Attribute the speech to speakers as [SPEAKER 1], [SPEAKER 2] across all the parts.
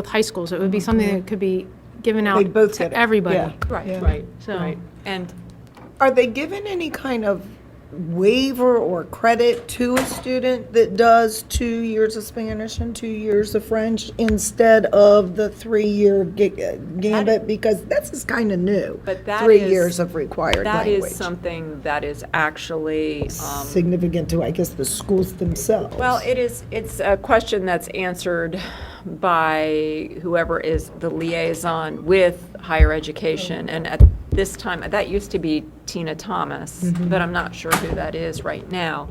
[SPEAKER 1] with high school, so it would be something that could be given out
[SPEAKER 2] They'd both get
[SPEAKER 1] to
[SPEAKER 2] it,
[SPEAKER 1] everybody.
[SPEAKER 2] yeah.
[SPEAKER 3] Right,
[SPEAKER 2] Yeah.
[SPEAKER 3] right,
[SPEAKER 1] So-
[SPEAKER 3] right. And
[SPEAKER 2] Are they given any kind of waiver or credit to a student that does two years of Spanish and two years of French instead of the three-year ga- gambit? Because this is kind of new.
[SPEAKER 3] But that
[SPEAKER 2] Three
[SPEAKER 3] is-
[SPEAKER 2] years of required
[SPEAKER 3] that is
[SPEAKER 2] language.
[SPEAKER 3] something that is actually, um,
[SPEAKER 2] Significant to, I guess, the schools themselves.
[SPEAKER 3] well, it is, it's a question that's answered by whoever is the liaison with higher education. And at this time, that used to be Tina Thomas,
[SPEAKER 2] Mm-hmm.
[SPEAKER 3] but I'm not sure who that is right now.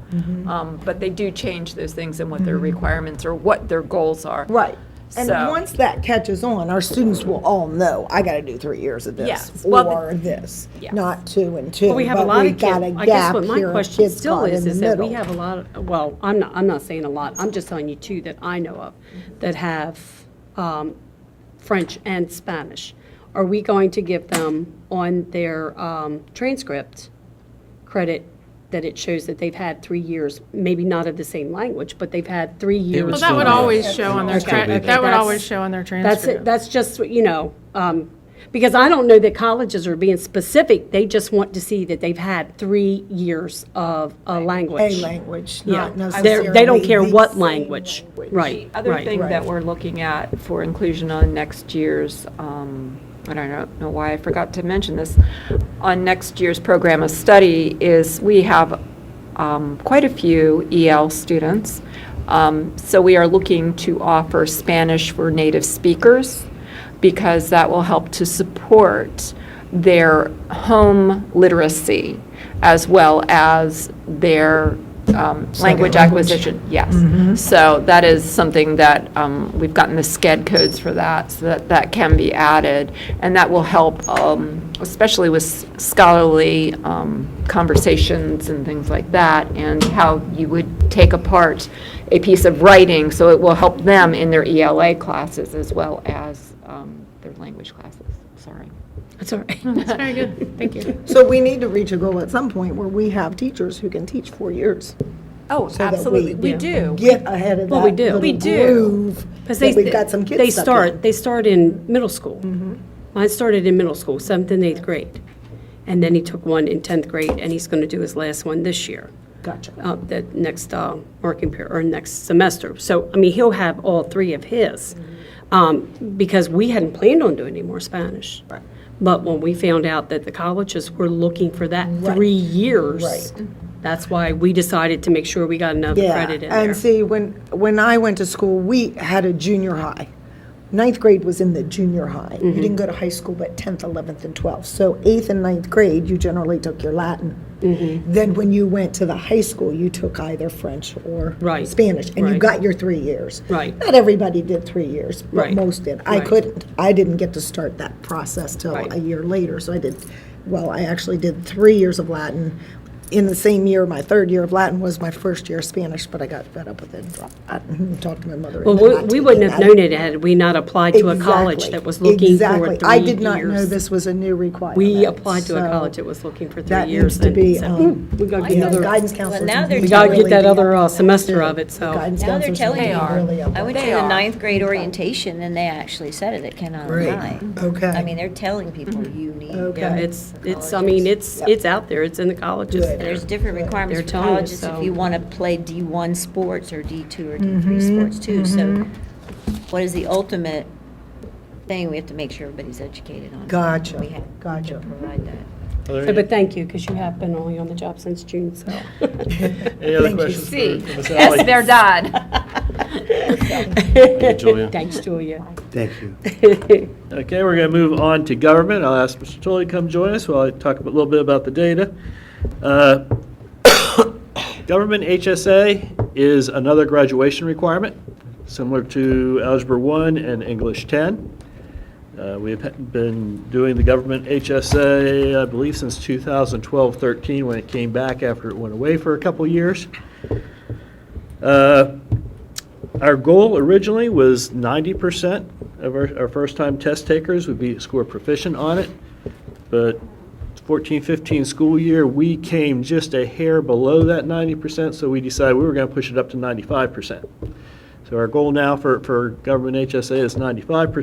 [SPEAKER 3] Um, But they do change those things and what their
[SPEAKER 2] Mm-hmm.
[SPEAKER 3] requirements or what their goals are.
[SPEAKER 2] Right. And
[SPEAKER 3] So-
[SPEAKER 2] once that catches on, our students will all know, I got to do three years of
[SPEAKER 3] Yes.
[SPEAKER 2] this
[SPEAKER 3] Well, the-
[SPEAKER 2] or this,
[SPEAKER 3] Yes.
[SPEAKER 2] not two and two.
[SPEAKER 4] But we have a lot of
[SPEAKER 2] got a
[SPEAKER 4] kids, I guess
[SPEAKER 2] gap
[SPEAKER 4] what my
[SPEAKER 2] here,
[SPEAKER 4] question
[SPEAKER 2] kids
[SPEAKER 4] still
[SPEAKER 2] caught in
[SPEAKER 4] is,
[SPEAKER 2] the
[SPEAKER 4] is that we
[SPEAKER 2] middle.
[SPEAKER 4] have a lot, of- well, I'm not, I'm not saying a lot, I'm just telling you two that I know of that have um, French and Spanish. Are we going to give them on their um, transcript credit that it shows that they've had three years, maybe not of the same language, but they've had three years?
[SPEAKER 1] Well, that would
[SPEAKER 4] of-
[SPEAKER 1] always show on their, tra-
[SPEAKER 4] Okay, okay,
[SPEAKER 1] that would
[SPEAKER 4] that's-
[SPEAKER 1] always show on their
[SPEAKER 4] That's, it.
[SPEAKER 1] transcript.
[SPEAKER 4] that's just, you know, um, because I don't know that colleges are being specific. They just want to see that they've had three years of
[SPEAKER 2] A
[SPEAKER 4] a language.
[SPEAKER 2] language,
[SPEAKER 4] Yeah,
[SPEAKER 2] not
[SPEAKER 4] They're-
[SPEAKER 2] necessarily.
[SPEAKER 4] they don't care
[SPEAKER 2] the
[SPEAKER 4] what
[SPEAKER 2] same
[SPEAKER 4] language. Right,
[SPEAKER 3] The other thing
[SPEAKER 4] right.
[SPEAKER 3] that we're looking at for inclusion on next year's, um, I don't know- know why I forgot to mention this, on next year's program of study is we have um, quite a few EL students. Um, So we are looking to offer Spanish for native speakers because that will help to support their home literacy as well as their um, language acquisition. Yes. So that is something that, um, we've gotten the SCED codes for that, so that that can be added. And that will help, um, especially with scholarly um, conversations and things like that, and how you would take apart a piece of writing, so it will help them in their ELA classes as well as um, their language classes. Sorry.
[SPEAKER 4] That's all right.
[SPEAKER 1] That's very good, thank you.
[SPEAKER 2] So we need to reach a goal at some point where we have teachers who can teach four years.
[SPEAKER 3] Oh,
[SPEAKER 2] that we- absolutely. We
[SPEAKER 3] do.
[SPEAKER 2] Get ahead of
[SPEAKER 4] Well, we
[SPEAKER 2] that
[SPEAKER 4] do.
[SPEAKER 2] little
[SPEAKER 4] We
[SPEAKER 3] do.
[SPEAKER 2] groove
[SPEAKER 4] Because
[SPEAKER 2] that
[SPEAKER 4] they,
[SPEAKER 2] we've got some kids
[SPEAKER 4] they
[SPEAKER 2] stuck
[SPEAKER 4] start,
[SPEAKER 2] in. Mm-hmm.
[SPEAKER 4] they start in middle school. Mine started in middle school, seventh and eighth grade. And then he took one in 10th grade, and he's going to do his last one this year.
[SPEAKER 2] Gotcha.
[SPEAKER 4] uh, the next uh, working period, or next semester. So, I mean, he'll have all three of his,
[SPEAKER 2] Mm-hmm.
[SPEAKER 4] um, because we hadn't planned on doing any more Spanish.
[SPEAKER 2] Right.
[SPEAKER 4] But when we found out that the colleges were looking for that three years,
[SPEAKER 2] Right.
[SPEAKER 4] that's why we decided to make sure we got another credit in
[SPEAKER 2] Yeah,
[SPEAKER 4] there.
[SPEAKER 2] and see, when, when I went to school, we had a junior high. Ninth grade was in the junior high. You
[SPEAKER 4] Mm-hmm.
[SPEAKER 2] didn't go to high school, but 10th, 11th, and 12th. So eighth and ninth grade, you generally took your Latin.
[SPEAKER 4] Mm-hmm.
[SPEAKER 2] Then when you went to the high school, you took either French or
[SPEAKER 4] Right,
[SPEAKER 2] Spanish, and you
[SPEAKER 4] right.
[SPEAKER 2] got your three years.
[SPEAKER 4] Right.
[SPEAKER 2] Not everybody did three years, but
[SPEAKER 4] Right,
[SPEAKER 2] most did. I
[SPEAKER 4] right.
[SPEAKER 2] couldn't. I didn't get to start that process till
[SPEAKER 4] Right.
[SPEAKER 2] a year later. So I did, well, I actually did three years of Latin. In the same year, my third year of Latin was my first year of Spanish, but I got fed up with it and dropped that and talked to my mother.
[SPEAKER 4] Well,
[SPEAKER 2] and
[SPEAKER 4] we-
[SPEAKER 2] did not
[SPEAKER 4] we
[SPEAKER 2] take
[SPEAKER 4] wouldn't have
[SPEAKER 2] that.
[SPEAKER 4] known it had we not applied to a college
[SPEAKER 2] Exactly.
[SPEAKER 4] that was looking for three
[SPEAKER 2] Exactly.
[SPEAKER 4] years.
[SPEAKER 2] I did not know this was a new requirement.
[SPEAKER 4] We applied to a
[SPEAKER 2] so
[SPEAKER 4] college that was looking for
[SPEAKER 2] That
[SPEAKER 4] three
[SPEAKER 2] needs
[SPEAKER 4] years.
[SPEAKER 2] to
[SPEAKER 4] and
[SPEAKER 2] be,
[SPEAKER 4] so-
[SPEAKER 2] um,
[SPEAKER 4] We gotta
[SPEAKER 2] you
[SPEAKER 4] get
[SPEAKER 2] know,
[SPEAKER 4] another-
[SPEAKER 2] guidance counselors.
[SPEAKER 5] now they're
[SPEAKER 2] need
[SPEAKER 4] we
[SPEAKER 2] to
[SPEAKER 4] gotta
[SPEAKER 2] really
[SPEAKER 4] get that
[SPEAKER 2] be
[SPEAKER 4] other
[SPEAKER 2] up on
[SPEAKER 4] uh,
[SPEAKER 2] that,
[SPEAKER 4] semester
[SPEAKER 2] too.
[SPEAKER 4] of it, so.
[SPEAKER 2] Guidance
[SPEAKER 5] Now they're
[SPEAKER 2] counselors need
[SPEAKER 5] telling
[SPEAKER 2] to be
[SPEAKER 5] you.
[SPEAKER 2] really up
[SPEAKER 5] I
[SPEAKER 2] on
[SPEAKER 5] went
[SPEAKER 2] that.
[SPEAKER 5] to
[SPEAKER 3] They
[SPEAKER 5] the
[SPEAKER 3] are.
[SPEAKER 5] ninth grade orientation, and they actually said it, it cannot
[SPEAKER 2] Great.
[SPEAKER 5] lie.
[SPEAKER 2] Okay.
[SPEAKER 5] I mean, they're telling people you need.
[SPEAKER 2] Okay.
[SPEAKER 4] Yeah, it's, it's, I mean, it's, it's out there, it's in the colleges.
[SPEAKER 2] Good.
[SPEAKER 5] There's different
[SPEAKER 4] They're
[SPEAKER 5] requirements for
[SPEAKER 4] telling you,
[SPEAKER 5] colleges if
[SPEAKER 4] so-
[SPEAKER 5] you want to play D1 sports or D2 or D3
[SPEAKER 2] Mm-hmm.
[SPEAKER 5] sports too. So what is the ultimate thing? We have to make sure everybody's educated on.
[SPEAKER 2] Gotcha,
[SPEAKER 5] We have to
[SPEAKER 2] gotcha.
[SPEAKER 5] Provide that.
[SPEAKER 4] So, But thank you, because you have been only on the job since June, so.
[SPEAKER 6] Any other
[SPEAKER 2] Thank you.
[SPEAKER 6] questions for
[SPEAKER 3] See.
[SPEAKER 6] Ms.
[SPEAKER 3] Yes,
[SPEAKER 6] Alley?
[SPEAKER 3] they're done.
[SPEAKER 6] Thank you, Julia.
[SPEAKER 4] Thanks, Julia.
[SPEAKER 7] Thank you.
[SPEAKER 6] Okay, we're going to move on to government. I'll ask Mr. Tully to come join us while I talk a little bit about the data. Uh, Government HSA is another graduation requirement, similar to Algebra 1 and English 10. Uh, We've ha- been doing the government HSA, I believe, since 2012, 13, when it came back after it went away for a couple years. Uh, Our goal originally was 90% of our, our first-time test takers would be score proficient on it, but 14, 15 school year, we came just a hair below that 90%, so we decided we were going to push it up to 95%. So our goal now for, for government HSA is 95%.